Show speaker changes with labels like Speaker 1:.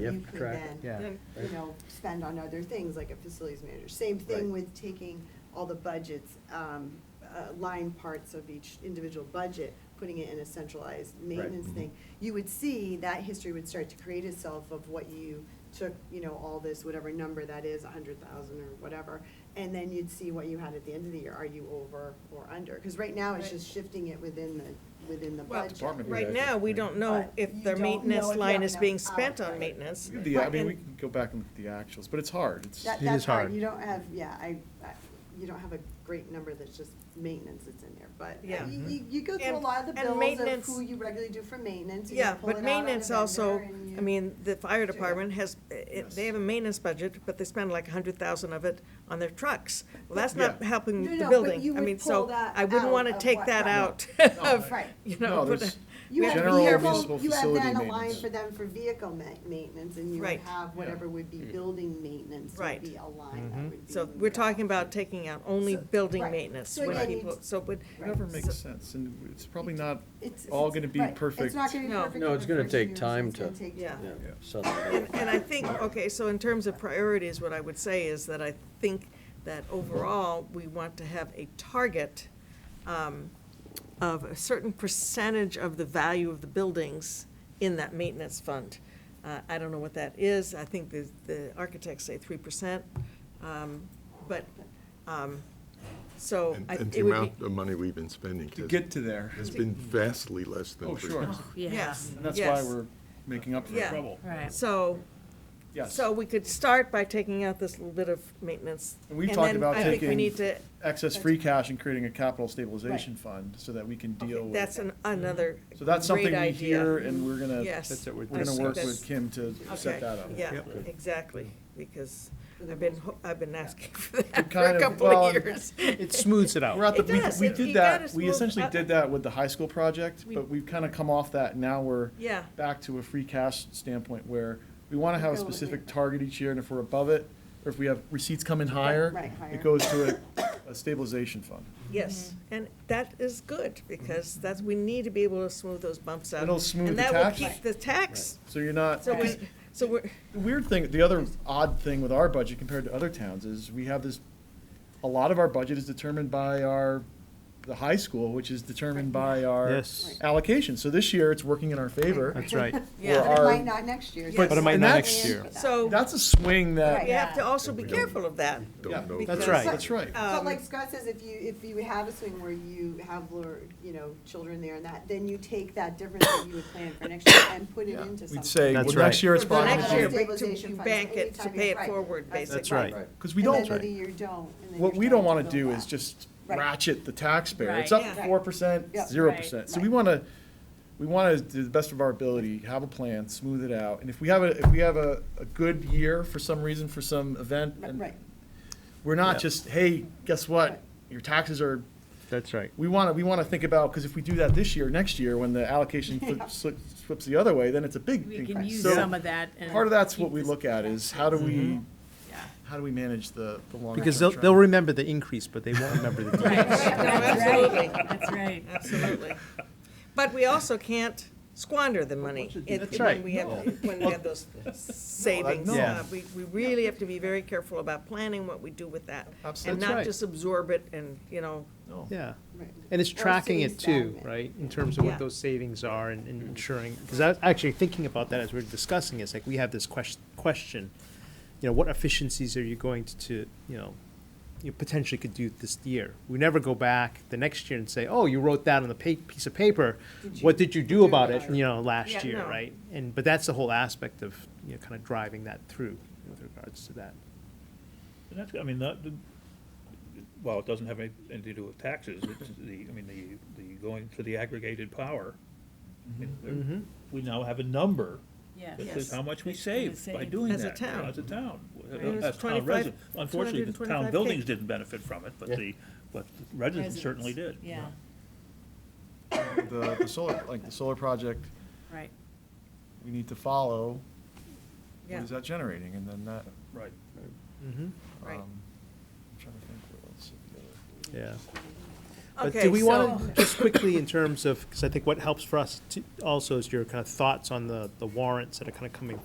Speaker 1: that
Speaker 2: you
Speaker 1: you
Speaker 2: have to
Speaker 1: could
Speaker 2: track it.
Speaker 1: then,
Speaker 3: Yeah.
Speaker 4: Then-
Speaker 1: you know, spend on other things, like a facilities manager. Same
Speaker 2: Right.
Speaker 1: thing with taking all the budgets, um, uh, line parts of each individual budget, putting it in a centralized maintenance
Speaker 5: Mhm.
Speaker 1: thing. You would see that history would start to create itself of what you took, you know, all this, whatever number that is, a hundred thousand or whatever. And then you'd see what you had at the end of the year. Are you over or under? Because right now, it's
Speaker 4: Right.
Speaker 1: just shifting it within the, within the
Speaker 4: Well,
Speaker 1: budget.
Speaker 5: Department
Speaker 4: Right
Speaker 5: Yeah,
Speaker 4: now, we
Speaker 5: yeah.
Speaker 4: don't know
Speaker 1: But you
Speaker 4: if their
Speaker 1: don't know if
Speaker 4: maintenance
Speaker 1: you
Speaker 4: line
Speaker 1: have
Speaker 4: is
Speaker 1: enough
Speaker 4: We can spend
Speaker 1: hours.
Speaker 4: on maintenance.
Speaker 5: We could do- I
Speaker 4: But-
Speaker 5: mean, we
Speaker 4: and-
Speaker 5: can go back and look at the actuals, but it's hard, it's,
Speaker 1: That,
Speaker 3: It
Speaker 1: that's
Speaker 3: is hard.
Speaker 1: hard, you don't have, yeah, I, I- you don't have a great number that's just maintenance that's in there, but
Speaker 4: Yeah.
Speaker 1: uh, you, you- you go through a
Speaker 4: And-
Speaker 1: lot of the
Speaker 4: and
Speaker 1: bills of
Speaker 4: maintenance-
Speaker 1: who you regularly do for maintenance, and you
Speaker 4: Yeah,
Speaker 1: pull it out
Speaker 4: but
Speaker 1: on a
Speaker 4: maintenance also,
Speaker 1: vendor and
Speaker 4: I
Speaker 1: you-
Speaker 4: mean, the fire
Speaker 1: do it.
Speaker 4: department has, it-
Speaker 5: Yes.
Speaker 4: they have a maintenance budget, but they spend like a hundred thousand of it on their trucks. Well, that's not
Speaker 5: Yeah.
Speaker 1: No, no,
Speaker 4: helping the
Speaker 1: but you
Speaker 4: building. I
Speaker 1: would
Speaker 4: mean,
Speaker 1: pull
Speaker 4: so
Speaker 1: that
Speaker 4: I wouldn't
Speaker 1: out
Speaker 4: wanna
Speaker 1: of
Speaker 4: take
Speaker 1: what-
Speaker 4: that
Speaker 1: No.
Speaker 4: out
Speaker 5: No,
Speaker 4: of,
Speaker 1: Right.
Speaker 4: you know.
Speaker 5: no,
Speaker 4: but-
Speaker 5: there's,
Speaker 1: You
Speaker 4: we
Speaker 1: have
Speaker 4: have to be
Speaker 5: general
Speaker 4: careful.
Speaker 1: vehicle,
Speaker 5: municipal
Speaker 1: you have
Speaker 5: facility
Speaker 1: then a line
Speaker 5: maintenance.
Speaker 1: for them for vehicle ma- maintenance, and you would
Speaker 4: Right.
Speaker 1: have whatever would
Speaker 5: Hmm.
Speaker 1: be building maintenance
Speaker 4: Right.
Speaker 1: would be a line
Speaker 5: Mm-hmm.
Speaker 1: that would be.
Speaker 4: So we're talking about taking out only
Speaker 1: So-
Speaker 4: building
Speaker 1: right.
Speaker 4: maintenance,
Speaker 1: So
Speaker 4: which
Speaker 1: again,
Speaker 4: people,
Speaker 1: you-
Speaker 4: so, but.
Speaker 5: it never makes sense, and it's probably not
Speaker 1: It's-
Speaker 5: all
Speaker 1: it's-
Speaker 5: gonna be
Speaker 1: right. It's
Speaker 5: perfect.
Speaker 1: not gonna be
Speaker 4: No.
Speaker 1: perfect.
Speaker 2: No, it's gonna
Speaker 1: in the first
Speaker 2: take
Speaker 1: year, so
Speaker 2: time
Speaker 1: it's gonna
Speaker 2: to-
Speaker 1: take
Speaker 4: Yeah.
Speaker 1: time.
Speaker 2: Yeah,
Speaker 5: Yeah.
Speaker 2: something
Speaker 4: And,
Speaker 2: like that.
Speaker 4: and I think, okay, so in terms of priorities, what I would say is that I think that overall, we want to have a target um, of a certain percentage of the value of the buildings in that maintenance fund. Uh, I don't know what that is, I think the, the architects say three percent, but, um, so.
Speaker 6: And
Speaker 4: I-
Speaker 6: and
Speaker 4: it
Speaker 6: the
Speaker 4: would be-
Speaker 6: amount of money we've been spending
Speaker 5: To
Speaker 6: has-
Speaker 5: get to there,
Speaker 6: has been vastly less than.
Speaker 5: oh,
Speaker 6: three
Speaker 5: sure, and
Speaker 6: percent.
Speaker 4: Yes,
Speaker 5: that's why
Speaker 4: yes.
Speaker 5: we're making up for
Speaker 4: Yeah.
Speaker 5: trouble,
Speaker 7: Right.
Speaker 4: So,
Speaker 5: yes.
Speaker 4: So we could start by taking out this little bit of maintenance.
Speaker 5: And we've talked
Speaker 4: then
Speaker 5: about
Speaker 4: I think we
Speaker 5: taking-
Speaker 4: need to,
Speaker 5: Excess free cash and creating a capital stabilization fund, so that we can deal with.
Speaker 4: that's an- another great idea.
Speaker 5: So that's something we hear, and we're gonna,
Speaker 4: Yes.
Speaker 3: That's what we're
Speaker 5: we're gonna
Speaker 4: I
Speaker 5: work
Speaker 4: think
Speaker 5: with
Speaker 4: that's-
Speaker 5: Kim to
Speaker 4: okay,
Speaker 5: set that up.
Speaker 4: Yeah,
Speaker 3: Yep.
Speaker 4: exactly, because
Speaker 1: For the
Speaker 4: I've been,
Speaker 1: most
Speaker 4: ho- I've been asking for that for
Speaker 5: kind
Speaker 4: a
Speaker 5: of-
Speaker 4: couple
Speaker 5: well,
Speaker 4: of
Speaker 5: and-
Speaker 4: years.
Speaker 3: It smooths it out.
Speaker 5: We're at the,
Speaker 4: It
Speaker 5: we,
Speaker 4: does.
Speaker 5: we
Speaker 4: It- you
Speaker 5: did
Speaker 4: gotta
Speaker 5: that, we
Speaker 4: smooth
Speaker 5: essentially
Speaker 4: out-
Speaker 5: did that with the high school project,
Speaker 4: We-
Speaker 5: but we've kind of come off that, now we're
Speaker 4: Yeah.
Speaker 5: back to a free cash standpoint where we want to have a
Speaker 1: Go with
Speaker 5: specific
Speaker 1: it.
Speaker 5: target each year, and if we're above it, or if we have receipts come in higher,
Speaker 1: right, higher.
Speaker 5: it goes to a, a stabilization fund.
Speaker 4: Yes, and that is good, because that's, we need to be able to smooth those bumps out.
Speaker 5: It'll smooth the
Speaker 4: And that will
Speaker 5: tax.
Speaker 4: keep the tax,
Speaker 5: So you're not,
Speaker 4: so we,
Speaker 5: because
Speaker 4: so we're,
Speaker 5: the weird thing, the other odd thing with our budget compared to other towns is we have this, a lot of our budget is determined by our, the high school, which is determined by our
Speaker 3: Yes,
Speaker 5: allocation. So this year, it's working in our favor.
Speaker 3: that's right.
Speaker 4: yeah.
Speaker 5: Or
Speaker 1: But it
Speaker 5: our-
Speaker 1: might not next year.
Speaker 4: But it
Speaker 1: so
Speaker 3: might
Speaker 1: it's
Speaker 5: not
Speaker 1: planned
Speaker 3: next
Speaker 1: for
Speaker 3: year.
Speaker 1: that.
Speaker 4: So
Speaker 5: That's a swing
Speaker 4: we
Speaker 5: that,
Speaker 1: Right.
Speaker 4: have to also be careful of that.
Speaker 5: yeah,
Speaker 6: Don't know.
Speaker 5: that's
Speaker 4: Because-
Speaker 5: right, that's right.
Speaker 1: But
Speaker 4: Um,
Speaker 1: like Scott says, if you, if you have a swing where you have, lower, you know, children there and that, then you take that difference that you would plan for next year and put it
Speaker 5: Yeah.
Speaker 1: into something.
Speaker 5: We'd say, well,
Speaker 3: That's
Speaker 5: next
Speaker 3: right.
Speaker 5: year it's
Speaker 4: For the
Speaker 5: probably.
Speaker 4: next
Speaker 5: gonna
Speaker 4: year,
Speaker 5: be-
Speaker 4: but to
Speaker 1: Stabilization funds,
Speaker 4: bank it, to
Speaker 1: anytime
Speaker 4: pay
Speaker 1: you-
Speaker 4: it
Speaker 1: right.
Speaker 4: forward, basically.
Speaker 3: That's right.
Speaker 2: Right.
Speaker 5: Because we
Speaker 1: And then the
Speaker 5: don't,
Speaker 1: year you don't. and then
Speaker 5: what
Speaker 1: you're
Speaker 5: we
Speaker 1: trying
Speaker 5: don't want to
Speaker 1: build
Speaker 5: do
Speaker 1: that.
Speaker 5: is just
Speaker 1: Right.
Speaker 5: ratchet the taxpayer. It's
Speaker 7: Right.
Speaker 5: up
Speaker 1: Yeah.
Speaker 5: four percent,
Speaker 1: Yep.
Speaker 5: zero
Speaker 7: Right.
Speaker 5: percent. So
Speaker 1: Right.
Speaker 5: we want to, we want to, do the best of our ability, have a plan, smooth it out. And if we have a, if we have a, a good year for some reason, for some event,
Speaker 1: Right,
Speaker 5: and
Speaker 1: Right,
Speaker 5: we're not just, hey, guess what?
Speaker 1: Right.
Speaker 5: Your taxes are
Speaker 3: That's right.
Speaker 5: we want to, we want to think about, because if we do that this year, next year, when the allocation
Speaker 1: Yeah.
Speaker 5: flips, slips- flips the other way, then it's a big
Speaker 7: We can
Speaker 5: increase.
Speaker 7: use
Speaker 5: So
Speaker 7: some of that and.
Speaker 5: part of that's what
Speaker 7: keep
Speaker 5: we
Speaker 7: this-
Speaker 5: look at is how do we,
Speaker 7: Yeah.
Speaker 5: how do we manage the, the longer
Speaker 3: Mm-hmm. Because
Speaker 5: term
Speaker 3: they'll, they'll
Speaker 5: trend?
Speaker 3: remember the increase, but they won't remember the
Speaker 7: Right,
Speaker 3: decrease.
Speaker 7: right,
Speaker 4: No,
Speaker 7: that's right.
Speaker 4: absolutely.
Speaker 7: That's right.
Speaker 4: Absolutely. But we also can't squander the money. It-
Speaker 3: That's
Speaker 4: when
Speaker 3: right.
Speaker 4: we have- When we have those savings.
Speaker 5: no.
Speaker 4: Uh, We, we really have to be very careful about planning what we do with that. And
Speaker 5: Absolutely.
Speaker 3: That's
Speaker 4: not
Speaker 3: right.
Speaker 4: just absorb it and, you know,
Speaker 5: No.
Speaker 3: Yeah,
Speaker 1: right.
Speaker 3: and it's
Speaker 1: Or
Speaker 3: tracking
Speaker 1: sitting
Speaker 3: it too,
Speaker 1: stagnant.
Speaker 3: right, in terms of
Speaker 4: Yeah.
Speaker 3: what those savings are and and ensuring, because I was actually thinking about that as we we're discussing, it's like, we have this question, question, you know, what efficiencies are you going to, to, you know, you potentially could do this year? We never go back the next year and say, oh, you wrote that on the pa- piece of paper,
Speaker 1: Did
Speaker 3: what
Speaker 1: you
Speaker 3: did you
Speaker 1: do
Speaker 3: do about
Speaker 1: about
Speaker 3: it,
Speaker 1: it?
Speaker 3: you know,
Speaker 4: Yeah,
Speaker 3: last year,
Speaker 4: no.
Speaker 3: right? And, but that's the whole aspect of, you know, kind of driving that through with regards to that.
Speaker 8: And that's, I mean, that, the- well, it doesn't have any- anything to do with taxes, it's the, I mean, the, the going to the aggregated power. I mean,
Speaker 4: Mm-hmm.
Speaker 8: there- We now have a number
Speaker 7: Yeah.
Speaker 8: that says how much we
Speaker 7: That's what we
Speaker 8: saved by
Speaker 7: saved.
Speaker 8: doing that.
Speaker 4: As a town.
Speaker 8: As a town,
Speaker 4: Right. It was
Speaker 8: as town
Speaker 4: 25
Speaker 8: residents. Unfortunately, the town
Speaker 4: 225K.
Speaker 8: buildings didn't benefit from it, but the, but the residents certainly did.
Speaker 7: Yeah,
Speaker 5: The, the solar, like the solar project,
Speaker 7: right.
Speaker 5: we need to follow, what
Speaker 4: yeah,
Speaker 5: is that generating? And then that,
Speaker 8: Right.
Speaker 3: Mm-hmm.
Speaker 4: right.
Speaker 5: um, I'm trying to think what else. would be other-
Speaker 3: Yeah. But
Speaker 4: Okay,
Speaker 3: do we want
Speaker 4: so-
Speaker 3: to, just quickly in terms of, because I think what helps for us to, also is your kind of thoughts on the, the warrants that are kind of coming